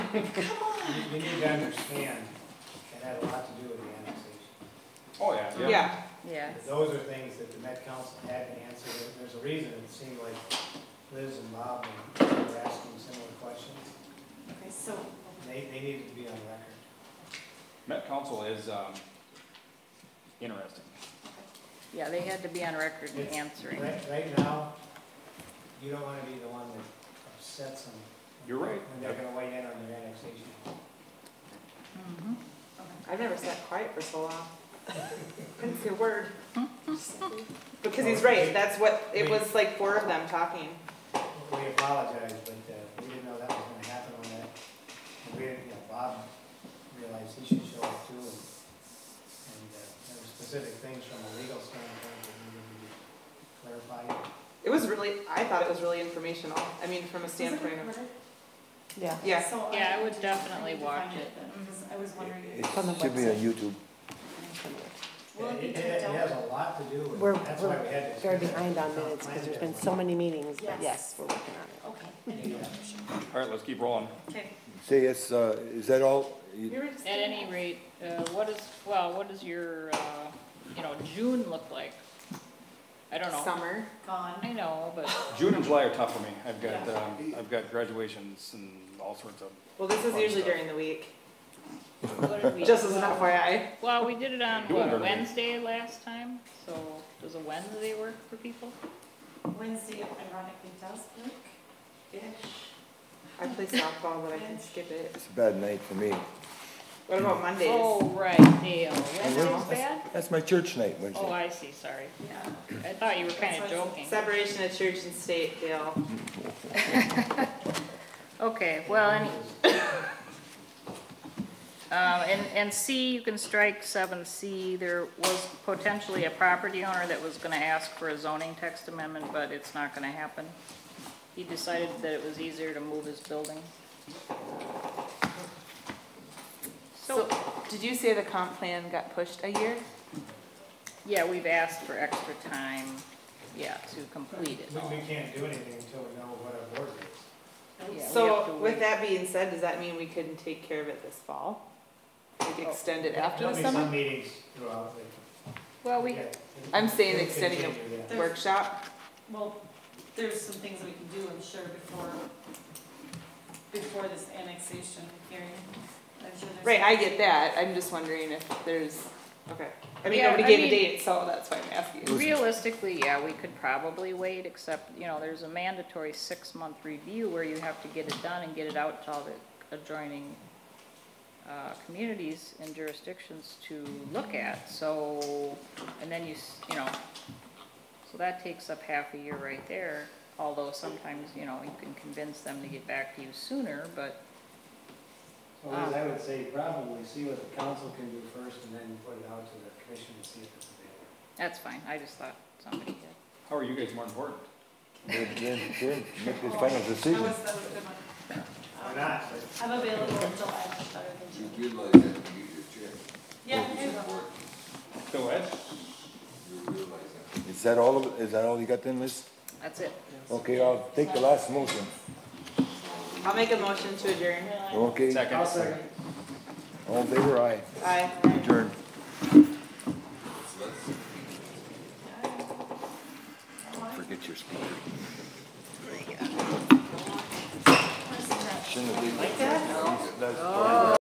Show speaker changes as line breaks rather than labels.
You- You need to understand, it had a lot to do with the annexation.
Oh, yeah.
Yeah,
Yes.
Those are things that the Met Council had to answer, There- there's a reason it seemed like Liz and Bob were asking similar questions.
Okay, so,
They, they needed to be on record.
Met Council is, um, interesting.
Yeah, they had to be on record in answering.
Right, right now, you don't wanna be the one that upsets them.
You're right.
When they're gonna weigh in on their annexation.
Mm-hmm.
Mhm.
I've never sat quiet for so long. Couldn't say a word. Because he's right, that's what, it was like four of them talking.
We apologize, but, uh, we didn't know that was gonna happen on that. And We didn't, you know, Bob realized he should show up too. And, and, uh, there were specific things from a legal standpoint that needed to be clarified.
It was really, I thought it was really informational, I mean, from a standpoint of,
Yeah,
yeah.
Yeah, I would definitely watch it. Mm-hmm.
Because I was wondering.
It
on the
should be on
website.
YouTube.
Will it be
It, it
typed out?
has a lot to do
We're-
with, that's why we had this.
Very behind on minutes because there's been so many meetings, but
Yes.
yes, we're working on it.
Okay.
All right, let's keep rolling.
Okay.
Say, yes, uh, is that all? You-
You were just-
At any rate, uh, what is, well, what does your, uh, you know, June look like? I don't know.
Summer.
Gone.
I know, but
June and July are tough for me. I've got, um, I've got graduations and all sorts of,
Well, this is usually during the week,
what did we?
just as an FYI.
Well, we did it on
Doing it
what,
early.
Wednesday last time, so does a Wednesday work for people?
Wednesday ironically does work. Ish.
I play softball, but I can skip it.
It's a bad night for me.
What about Mondays?
Oh, right, Dale, Wednesday's bad?
That's my church night
Oh,
Wednesday.
I see, sorry.
Yeah.
I thought you were kinda
That's why I
joking.
Separation of church and state, Dale.
Okay, well, and, um, and, and C, you can strike seven C. There was potentially a property owner that was gonna ask for a zoning text amendment, but it's not gonna happen. He decided that it was easier to move his building.
So, did you say the comp plan got pushed a year?
Yeah, we've asked for extra time, yeah, to complete it.
We, we can't do anything until we know what our board is.
Yeah, we have to
So with
wait.
that being said, does that mean we couldn't take care of it this fall? Like
Oh,
extend it after
There'll
the
be
summer Oh,
some meetings throughout the
Well, we,
Yeah.
I'm saying
They
extending it.
continue, yeah.
workshop?
Well, there's some things that we can do, I'm sure, before, before this annexation hearing. I'm sure there's-
Right, I get that, I'm just wondering if there's, okay. I mean,
Yeah,
nobody
I
gave a
mean-
date, so that's why I'm asking.
Realistically, yeah, we could probably wait, except, you know, there's a mandatory six-month review where you have to get it done and get it out to all the adjoining uh, communities and jurisdictions to look at, so, and then you, s- you know, so that takes up half a year right there, although sometimes, you know, you can convince them to get back to you sooner, but,
So Liz, I would say probably see what the council can do first and then put it out to the commission and see if it's available.
that's fine, I just thought somebody did.
how are you guys more important?
Then, then then make this final
That
decision.
was, that was a good one.
Or not, but
I'm available until I much better than June.
You realize that when you get your check,
Yeah, I
it's
will.
important.
Go ahead.
You realize that.
Is that all, of- is that all you got then, Liz?
That's it.
Okay, I'll take the last motion.
I'll make a motion to adjourn.
Okay,
Second.
all in favor, aye.
Aye.
Adjourn.
So that's-
Forget your speaker. Shouldn't have leave.
Like that?